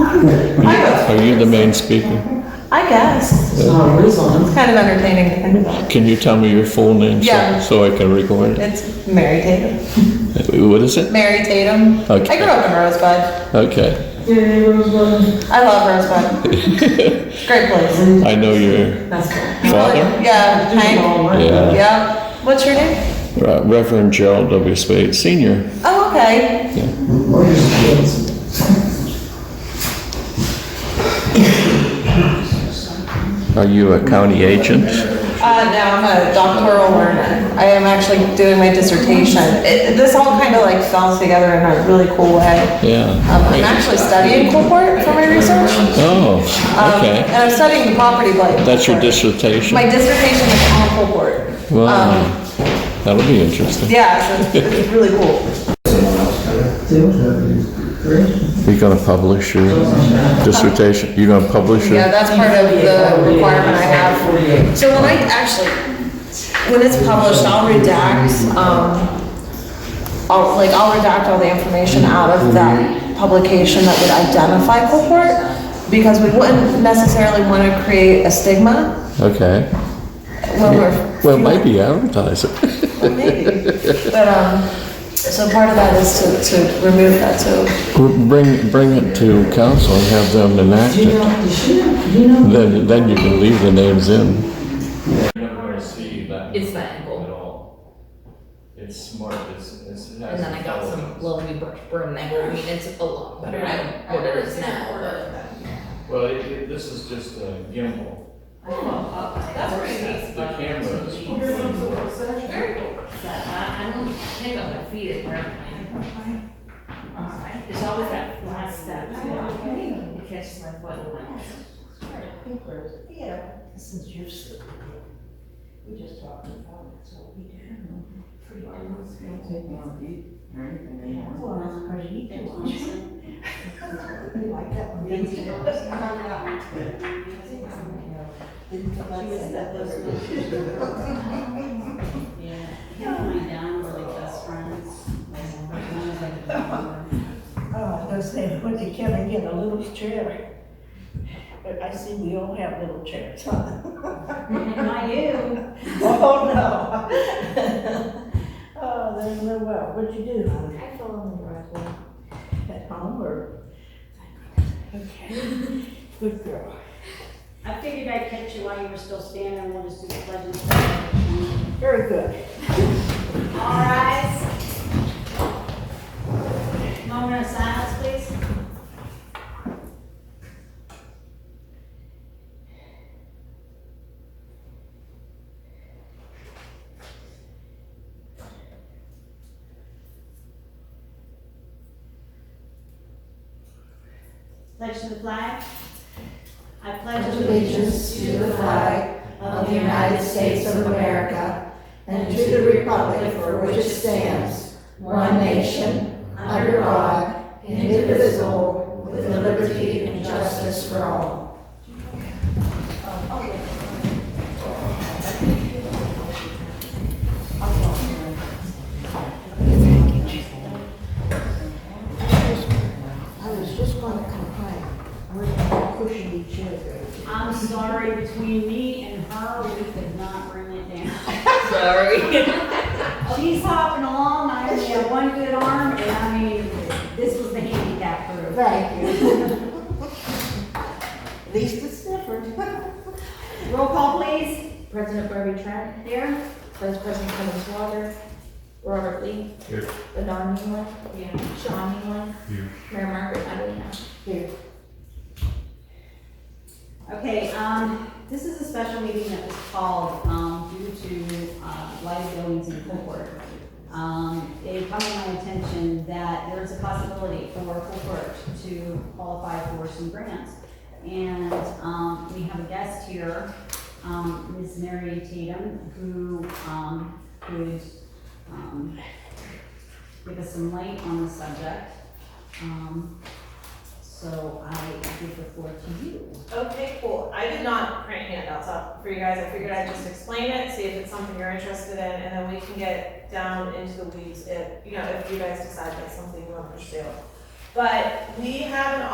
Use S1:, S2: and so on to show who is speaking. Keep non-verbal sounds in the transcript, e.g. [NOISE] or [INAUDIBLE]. S1: I
S2: Are you the main speaker?
S1: I guess.
S3: It's not a reason.
S1: It's kind of entertaining to think about.
S2: Can you tell me your full name so-
S1: Yeah.
S2: so I can record it?
S1: It's Mary Tatum.
S2: What is it?
S1: Mary Tatum.
S2: Okay.
S1: I grew up in Rosebud.
S2: Okay.
S3: Yeah, Rosebud.
S1: I
S2: [LAUGHS]
S1: love Rosebud. It's a great place.
S2: I know your
S3: That's cool.
S2: father,
S1: Yeah, Hank.
S2: Yeah.
S1: Yeah. What's your name?
S2: Re- Reverend Gerald W. Spade Sr.
S1: Oh, okay.
S2: Are you a county agent?
S1: Uh, no, I'm a doctoral learner. I am actually doing my dissertation. It, this all kind of like fell together in a really cool way. Um, I'm
S2: Yeah.
S1: actually studying Coolport for my research. Um,
S2: Oh,
S1: And
S2: okay.
S1: I'm studying the property blight.
S2: That's your
S1: district.
S2: dissertation?
S1: My dissertation is on Coolport.
S2: Wow.
S1: Um,
S2: That'll be interesting.
S1: Yeah, so it's it's really cool.
S2: You're gonna publish your dissertation? You're gonna publish
S1: Yeah,
S2: it?
S1: that's part of the requirement I have. So when I, actually, when it's published, I'll redact, um, I'll, like, I'll redact all the information out of that publication that would identify Coolport, because we wouldn't necessarily want to create a stigma
S2: Okay.
S1: when we're.
S2: Well, maybe advertise it. [LAUGHS]
S1: Maybe. But, um, so part of that is to, to remove that, so.
S2: Bring, bring it to council and have them enact
S3: Do you
S2: it.
S3: know, does she know, do you know?
S2: Then, then you can leave the names in.
S4: You're never gonna see that.
S5: It's that angle.
S4: At all. It's smart, it's, it's. it has
S5: And then I got some
S4: intelligence.
S5: Lone Birch Brim there, I mean, it's a lot better than what it is now, but.
S4: Well, it, it, this is just a gimbal.
S5: That's pretty
S4: The camera is.
S5: very cool. I, I don't think I'm gonna feed it It's always that last step, you
S6: Oh,
S5: know, it catches my foot in my hand.
S6: [LAUGHS] [LAUGHS] Him and my dad were like best friends. and my mom was like a grandmother.
S7: Oh, those [LAUGHS] things, what did Kevin get, a little chair? But I see we all have little chairs. [LAUGHS]
S6: Not you.
S7: Oh, no. [LAUGHS] Oh, there's no well, what'd you do? I fell on the driveway. At home or? Okay, good girl.
S6: I figured I'd catch you while you were still standing and wanted to do the pledge and stuff.
S7: Very good.
S6: All rise. Moment of silence, please. Pledge to the flag. I pledge allegiance to the flag of the United States of America and to the republic for which it stands, one nation, under God, indivisible, with liberty and justice for all.
S7: I was just gonna complain, we're pushing each other.
S6: I'm sorry, between me and her, we could not bring it down.
S5: Sorry.
S6: [LAUGHS] She's hopping along, I only have one good arm, and I mean, this was the handicap for her.
S7: Thank you. [LAUGHS] At least it's different.
S6: Roll call, please.
S8: President Barbie Trent,
S6: Here.
S8: Vice President Kevin Swager, Robert Lee.
S4: Here.
S8: Ladon Newland.
S6: Yeah.
S8: Sean Newland.
S4: Here.
S8: Mayor Margaret Medley.
S6: Okay, um, this is a special meeting that was called, um, due to, uh, live goings in Coolport. Um, they come to my attention that there's a possibility for Coolport to qualify for some grants. And, um, we have a guest here, um, Ms. Mary Tatum, who, um, would, um, give us some light on the subject. Um, so I give the floor to you.
S9: Okay, cool. I did not print handouts out for you guys. I figured I'd just explain it, see if it's something you're interested in, and then we can get down into the weeds if, you know, if you guys decide that's something you want to pursue. But we have an